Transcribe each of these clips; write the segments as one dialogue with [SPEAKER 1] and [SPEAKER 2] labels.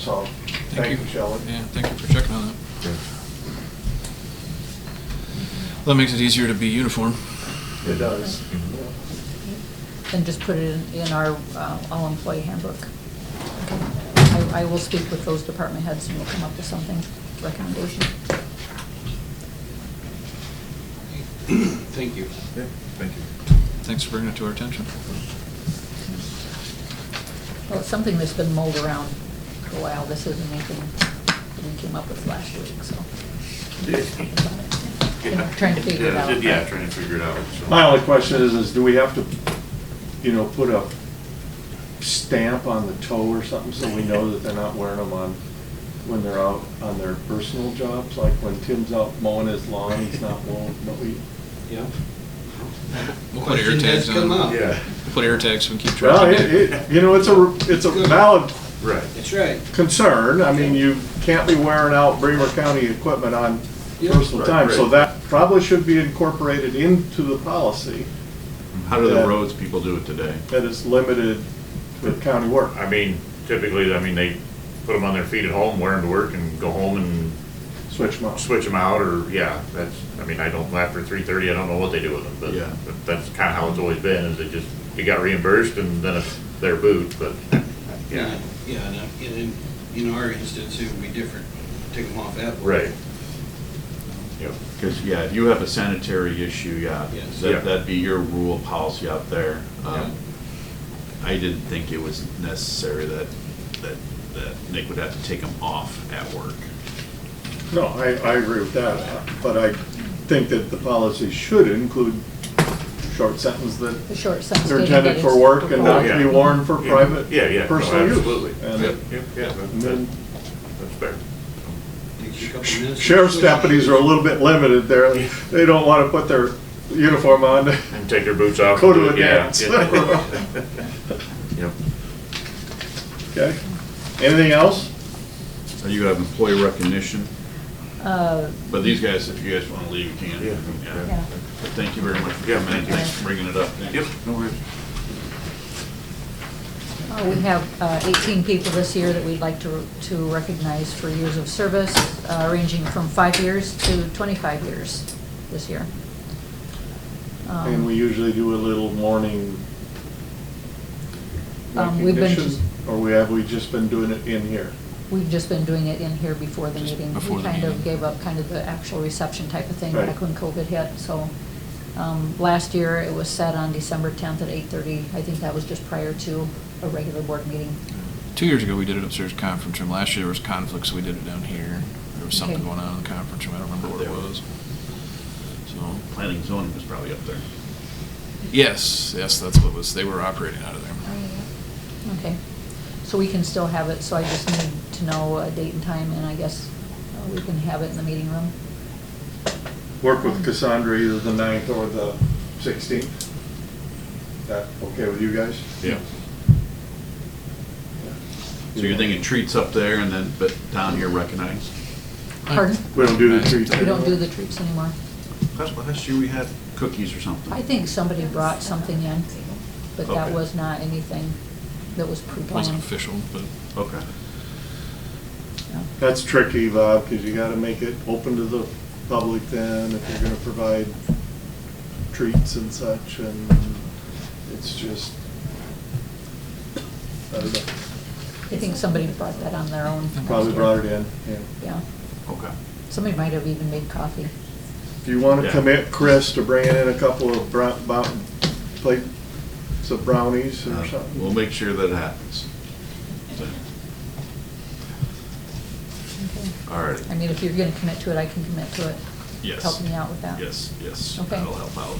[SPEAKER 1] So, thank you, Shelley.
[SPEAKER 2] Yeah, thank you for checking on that. Well, That makes it easier to be uniform.
[SPEAKER 1] It does.
[SPEAKER 3] And just put it in, in our uh, all-employee handbook. I, I will speak with those department heads and we'll come up with something, recommendation.
[SPEAKER 4] Thank you.
[SPEAKER 1] Yeah, Thank you.
[SPEAKER 2] Thanks for bringing it to our attention.
[SPEAKER 3] Well, it's something that's been mulled around for a while. This isn't anything that we came up with last week, so. You know, Trying to figure it
[SPEAKER 5] Yeah,
[SPEAKER 3] out.
[SPEAKER 5] Yeah, trying to figure it out. so.
[SPEAKER 1] My only question is, is do we have to, you know, put a stamp on the toe or something so we know that they're not wearing them on, when they're out on their personal jobs? Like when Tim's out mowing his lawn, he's not mowing, but we,
[SPEAKER 4] Yeah.
[SPEAKER 2] We'll put air tags on.
[SPEAKER 4] Question has come up.
[SPEAKER 5] Yeah,
[SPEAKER 2] We'll Put air tags so we can keep track
[SPEAKER 1] well,
[SPEAKER 2] of
[SPEAKER 1] it,
[SPEAKER 2] it.
[SPEAKER 1] it, you know, it's a, it's a valid
[SPEAKER 5] right.
[SPEAKER 4] That's right.
[SPEAKER 1] concern. I mean, you can't be wearing out Bremer County equipment on
[SPEAKER 4] Yeah.
[SPEAKER 1] personal
[SPEAKER 5] Right,
[SPEAKER 1] time. So
[SPEAKER 5] right.
[SPEAKER 1] that probably should be incorporated into the policy.
[SPEAKER 6] How do the
[SPEAKER 1] Yeah.
[SPEAKER 6] roads people do it today?
[SPEAKER 1] that is limited to county work.
[SPEAKER 5] I mean, typically, I mean, they put them on their feet at home, wear them to work and go home and
[SPEAKER 1] Switch them out.
[SPEAKER 5] switch them out or, yeah, that's, I mean, I don't, after three thirty, I don't know what they do with them,
[SPEAKER 6] Yeah.
[SPEAKER 5] but, but that's kind of how it's always been, is they just, you got reimbursed and then it's their boot, but, yeah,
[SPEAKER 4] Yeah, and, uh, and in, in our instance, it would be different. Take them off that. way.
[SPEAKER 5] right. Yep,
[SPEAKER 6] Because, yeah, if you have a sanitary issue, yeah,
[SPEAKER 4] Yes.
[SPEAKER 5] Yeah.
[SPEAKER 6] that- that'd be your rule of policy out there. Um, I didn't think it was necessary that, that, that Nick would have to take them off at work.
[SPEAKER 1] No, I, I agree with that, but I think that the policy should include short sentence that
[SPEAKER 3] The short sentence.
[SPEAKER 1] they're
[SPEAKER 3] stating that
[SPEAKER 1] intended for
[SPEAKER 3] it's
[SPEAKER 1] work and not
[SPEAKER 5] Oh,
[SPEAKER 1] to
[SPEAKER 5] yeah.
[SPEAKER 1] be worn for
[SPEAKER 5] Yeah.
[SPEAKER 1] private,
[SPEAKER 5] Yeah, yeah, no,
[SPEAKER 1] personal use.
[SPEAKER 5] absolutely.
[SPEAKER 1] And-
[SPEAKER 5] Yep, yep, yeah, that-
[SPEAKER 1] And then
[SPEAKER 5] that's fair.
[SPEAKER 4] Takes you a couple minutes.
[SPEAKER 1] sheriff's deputies are a little bit limited there. They don't want to put their uniform on.
[SPEAKER 5] And take their boots off.
[SPEAKER 1] Go to
[SPEAKER 5] and
[SPEAKER 1] a
[SPEAKER 5] do it, Oh, yeah,
[SPEAKER 1] dance.
[SPEAKER 5] yeah. Yep.
[SPEAKER 1] Okay? Anything else?
[SPEAKER 6] So You have employee recognition,
[SPEAKER 3] Uh,
[SPEAKER 6] but these guys, if you guys want to leave, you can.
[SPEAKER 5] Yeah.
[SPEAKER 3] yeah.
[SPEAKER 6] But Thank you very much for
[SPEAKER 5] Yeah,
[SPEAKER 6] coming in,
[SPEAKER 5] thank you.
[SPEAKER 6] thanks for bringing it up.
[SPEAKER 5] Yep, no worries.
[SPEAKER 3] Uh, We have uh, 18 people this year that we'd like to to recognize for years of service, uh, ranging from five years to 25 years this year. Um,
[SPEAKER 1] And we usually do a little morning
[SPEAKER 3] Um, we've been
[SPEAKER 1] recognition,
[SPEAKER 3] just-
[SPEAKER 1] or we, have we just been doing it in here?
[SPEAKER 3] We've just been doing it in here before the
[SPEAKER 2] Just
[SPEAKER 3] meeting.
[SPEAKER 2] before
[SPEAKER 3] We
[SPEAKER 2] the
[SPEAKER 3] kind of
[SPEAKER 2] meeting.
[SPEAKER 3] gave up kind of the actual reception type of thing
[SPEAKER 1] Right.
[SPEAKER 3] back when COVID hit, so. um, Last year, it was set on December 10th at 8:30. I think that was just prior to a regular board meeting.
[SPEAKER 2] Two years ago, we did it upstairs conference room. Last year, there was conflicts, so we did it down here. There was something
[SPEAKER 3] Okay.
[SPEAKER 2] going on in the conference room. I don't remember what it was. So,
[SPEAKER 6] Planning zoning was probably up there.
[SPEAKER 2] yes, yes, that's what it was. They were operating out of there.
[SPEAKER 3] Okay, so we can still have it, so I just need to know a date and time, and I guess uh, we can have it in the meeting room.
[SPEAKER 1] Work
[SPEAKER 3] Mm-hmm.
[SPEAKER 1] with Cassandra either the ninth or the sixteenth. That okay with you guys?
[SPEAKER 6] Yeah. So you're thinking treats up there and then, but down here recognized?
[SPEAKER 3] Pardon?
[SPEAKER 1] We don't do the treats.
[SPEAKER 3] We don't do the treats anymore.
[SPEAKER 6] Last, last year we had cookies or something.
[SPEAKER 3] I think somebody brought something in, but that
[SPEAKER 6] Okay.
[SPEAKER 3] was not anything that was
[SPEAKER 2] It
[SPEAKER 3] pre-planned.
[SPEAKER 2] wasn't official, but
[SPEAKER 6] Okay.
[SPEAKER 3] No.
[SPEAKER 1] That's tricky, Bob, because you gotta make it open to the public then, if you're gonna provide treats and such, and it's just, I don't know,
[SPEAKER 3] I think somebody brought that on their own.
[SPEAKER 1] probably brought it in, yeah.
[SPEAKER 3] Yeah,
[SPEAKER 6] Okay.
[SPEAKER 3] somebody might have even made coffee.
[SPEAKER 1] If you want to
[SPEAKER 6] Yeah.
[SPEAKER 1] commit Chris to bringing in a couple of brown, about, plates of brownies or
[SPEAKER 6] Uh,
[SPEAKER 1] something.
[SPEAKER 6] We'll make sure that happens. So, All right.
[SPEAKER 3] I mean, if you're gonna commit to it, I can commit to it.
[SPEAKER 6] Yes.
[SPEAKER 3] Help me out with that.
[SPEAKER 6] Yes, yes.
[SPEAKER 3] Okay.
[SPEAKER 6] That'll help out.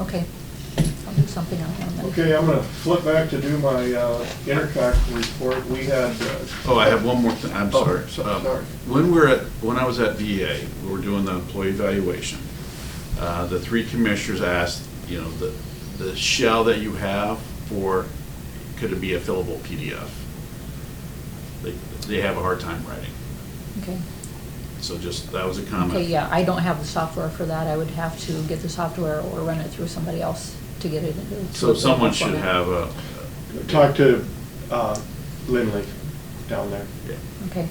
[SPEAKER 3] Okay, I'll do something on that.
[SPEAKER 1] Okay, I'm gonna flip back to do my uh, Intercock report. We had, uh,
[SPEAKER 6] Oh, I have one more thing, I'm
[SPEAKER 1] Oh,
[SPEAKER 6] sorry.
[SPEAKER 1] so-
[SPEAKER 6] Um,
[SPEAKER 1] sorry.
[SPEAKER 6] When we we're at, when I was at VA, we were doing the employee evaluation, uh, the three commissioners asked, you know, the, the shell that you have for, could it be a fillable PDF? They, they have a hard time writing,
[SPEAKER 3] Okay,
[SPEAKER 6] so just, that was a comment.
[SPEAKER 3] okay, yeah, I don't have the software for that. I would have to get the software or run it through somebody else to get it. into-
[SPEAKER 6] So someone should
[SPEAKER 3] format.
[SPEAKER 6] have a.
[SPEAKER 1] talked to uh, Lindley.
[SPEAKER 7] down there.
[SPEAKER 8] Yeah.
[SPEAKER 1] Okay.